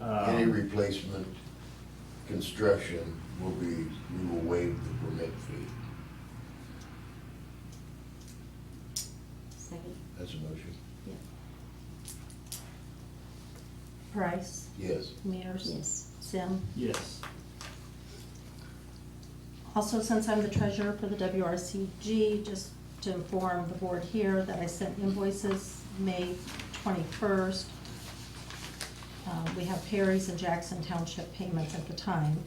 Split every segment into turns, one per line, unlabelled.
Oh,
Any
Um,
replacement construction will be, we will waive the permit fee.
Second.
That's a motion?
Price,
Yes.
Mears,
Yes.
Sim.
Yes.
Also, since I'm the treasurer for the WRCG, just to inform the board here that I sent invoices May twenty-first. uh, We have Perry's and Jackson Township payments at the time.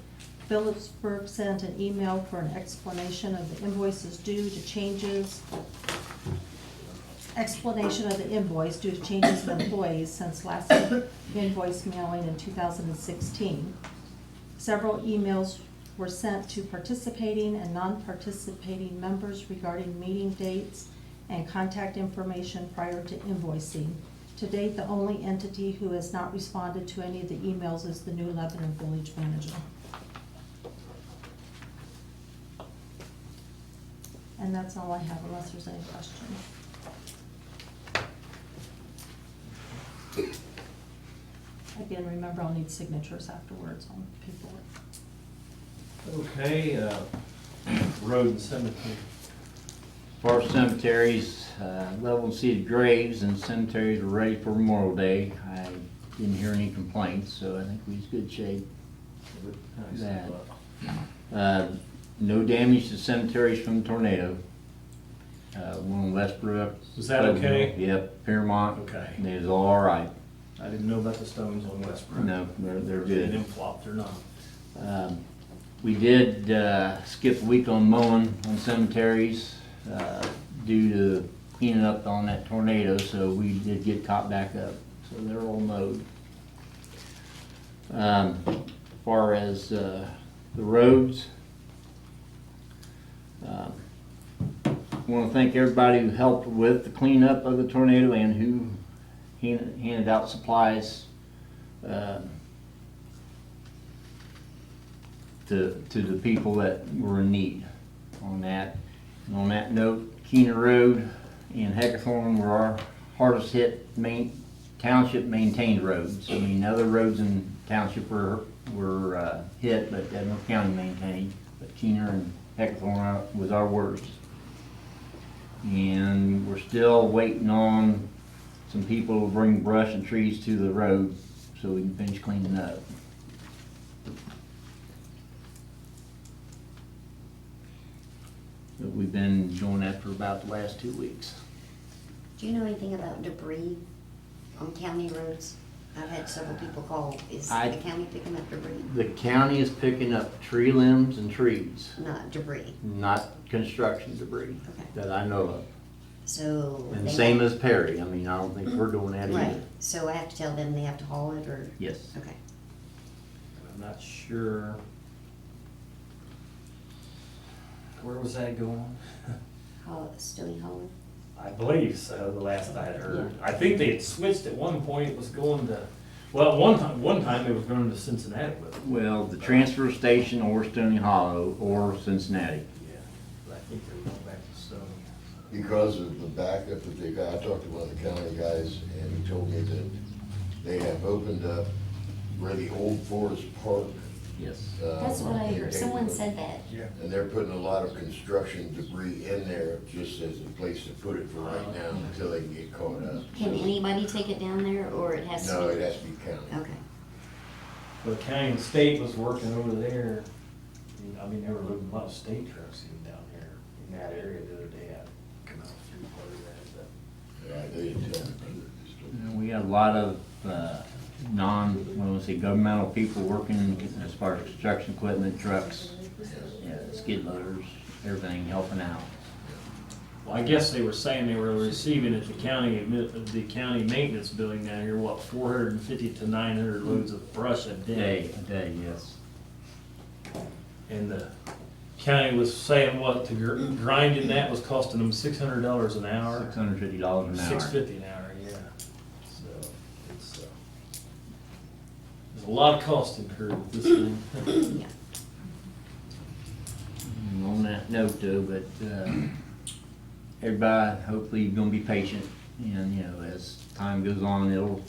Phillipsburg sent an email for an explanation of the invoices due to changes. Explanation of the invoice due to changes in employees since last invoice mailing in two thousand and sixteen. Several emails were sent to participating and non-participating members regarding meeting dates and contact information prior to invoicing. To date, the only entity who has not responded to any of the emails is the new Lebanon Village Manager. And that's all I have unless there's any questions. Again, remember, I'll need signatures afterwards on paperwork.
Okay, uh, road and cemetery.
Forest cemeteries, uh, level and seeded graves and cemeteries are ready for Memorial Day. I didn't hear any complaints, so I think we're in good shape.
Nice.
That. Uh, No damage to cemeteries from tornado. Uh, One in Westbrook.
Was that okay?
Yep, Piermont.
Okay.
It was all right.
I didn't know about the stones on Westbrook.
No, they're, they're
They
good.
didn't flop, they're not.
Um, We did uh, skip a week on mowing on cemeteries uh, due to cleaning up on that tornado, so we did get caught back up, so they're all mowed. Um, as Far as uh, the roads, um, I want to thank everybody who helped with the cleanup of the tornado and who hand- handed out supplies. um, to, to the people that were in need on that. And on that note, Keener Road and Hackathorn were our hardest hit main, township maintained roads. I mean, other roads in township were, were, uh, hit, but Edmond County maintained, but Keener and Hackathorn was our worst. And we're still waiting on some people to bring brush and trees to the road so we can finish cleaning up. that we've been going after about the last two weeks.
Do you know anything about debris on county roads? I've had several people call, is
I-
the county picking up debris?
The county is picking up tree limbs and trees,
Not debris,
not construction debris
Okay.
that I know
so.
of. And
they
same
have-
as Perry, I mean, I don't think we're doing that
Right,
either.
so I have to tell them they have to haul it, or,
Yes.
okay.
I'm not sure. Where was that going?
Haul, still hauling?
I believe so, the last I had heard. I think they had switched at one point, it was going to, well, one time, one time it was going to Cincinnati with it.
Well, the transfer station or Stony Hollow or Cincinnati.
Yeah, but I think they were going back to Stony.
Because of the backup that they got, I talked to one of the county guys and he told me that they have opened up where the old Forest Park.
Yes.
uh,
That's what I
area
heard, someone
was.
said that.
Yeah.
And they're putting a lot of construction debris in there just as a place to put it for right now until they can get caught up.
Can
So-
anybody take it down there, or it has to be?
No, it has to be county.
Okay,
But county and state was working over there. And, I mean, they were loading a lot of state trucks even down there in that area the other day. I come out through part of that, but.
Yeah, they didn't tell me.
And We got a lot of, uh, non, what do I say, governmental people working as far as construction equipment, trucks, yeah, skid loaders, everything helping out.
Well, I guess they were saying they were receiving at the county, admi- the county maintenance building down here, what, four hundred and fifty to nine hundred loads of brush a
Day,
day?
day, yes.
And the county was saying what, to gr- grinding that was costing them six hundred dollars an hour?
Six hundred fifty dollars an hour.
Six fifty an hour, yeah. So, it's, uh, there's a lot of cost incurred with this thing.
yeah.
And Mm, On that note though, but, uh, everybody, hopefully you're gonna be patient and, you know, as time goes on, it'll,